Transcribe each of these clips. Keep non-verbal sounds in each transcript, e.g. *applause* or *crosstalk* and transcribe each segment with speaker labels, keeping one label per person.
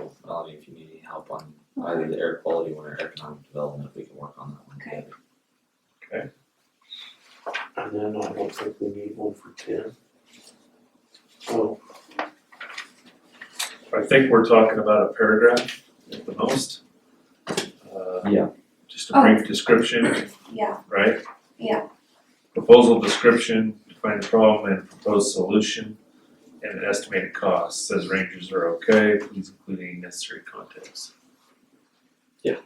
Speaker 1: with Bobby if you need any help on either the air quality one or economic development, we can work on that one
Speaker 2: Okay.
Speaker 1: together.
Speaker 3: And then I don't think we need one for ten. So,
Speaker 4: I think we're talking about a paragraph at the most. Uh,
Speaker 1: Yeah.
Speaker 4: Just a brief description,
Speaker 2: Yeah,
Speaker 4: right?
Speaker 2: Yeah.
Speaker 4: Proposal description, define the problem and proposed solution, and estimated cost, says rangers are okay, please include any necessary context.
Speaker 1: Yeah.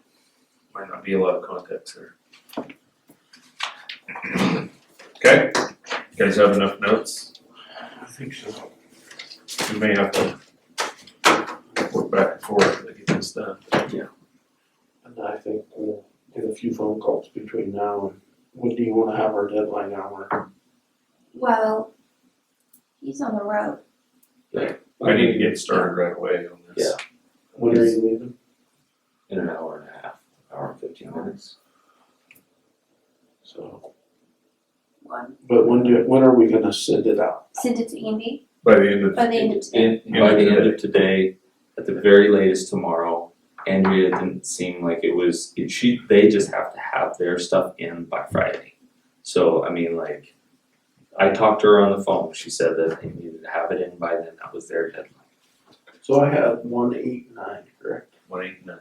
Speaker 4: Might not be a lot of context there. *clears throat* Okay, you guys have enough notes,
Speaker 3: I think so.
Speaker 4: we may have to work back and forth to get this done.
Speaker 3: And I think we'll get a few phone calls between now and, when do you wanna have our deadline hour?
Speaker 2: well, he's on the road.
Speaker 4: I need to get started right away on this.
Speaker 3: When are you leaving?
Speaker 1: In an hour and a half, hour and fifteen minutes.
Speaker 3: So,
Speaker 2: One.
Speaker 3: but when do, when are we gonna send it out?
Speaker 2: Send it to Andy
Speaker 4: By the end of.
Speaker 2: by the end of today.
Speaker 1: And by the end of today, at the very latest tomorrow, Andrea didn't seem like it was, it- she, they just have to have their stuff in by Friday. So, I mean, like, I talked to her on the phone, she said that they needed to have it in by then, that was their deadline.
Speaker 3: So I have one eight nine, correct?
Speaker 4: One eight nine.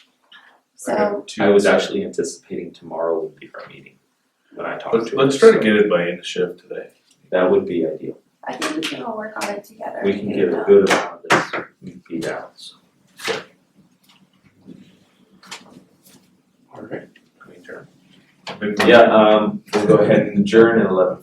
Speaker 4: I
Speaker 2: So
Speaker 4: have two-
Speaker 1: I was actually anticipating tomorrow would be our meeting when I talked
Speaker 4: Let's,
Speaker 1: to her.
Speaker 4: let's try to
Speaker 1: so
Speaker 4: get it by end of shift today.
Speaker 1: That would be ideal,
Speaker 2: I think we can all work on it together.
Speaker 1: we can get a good amount of this beat out, so.
Speaker 3: Alright.
Speaker 4: I mean, turn. Big one.
Speaker 1: Yeah, um, we'll go ahead and adjourn at eleven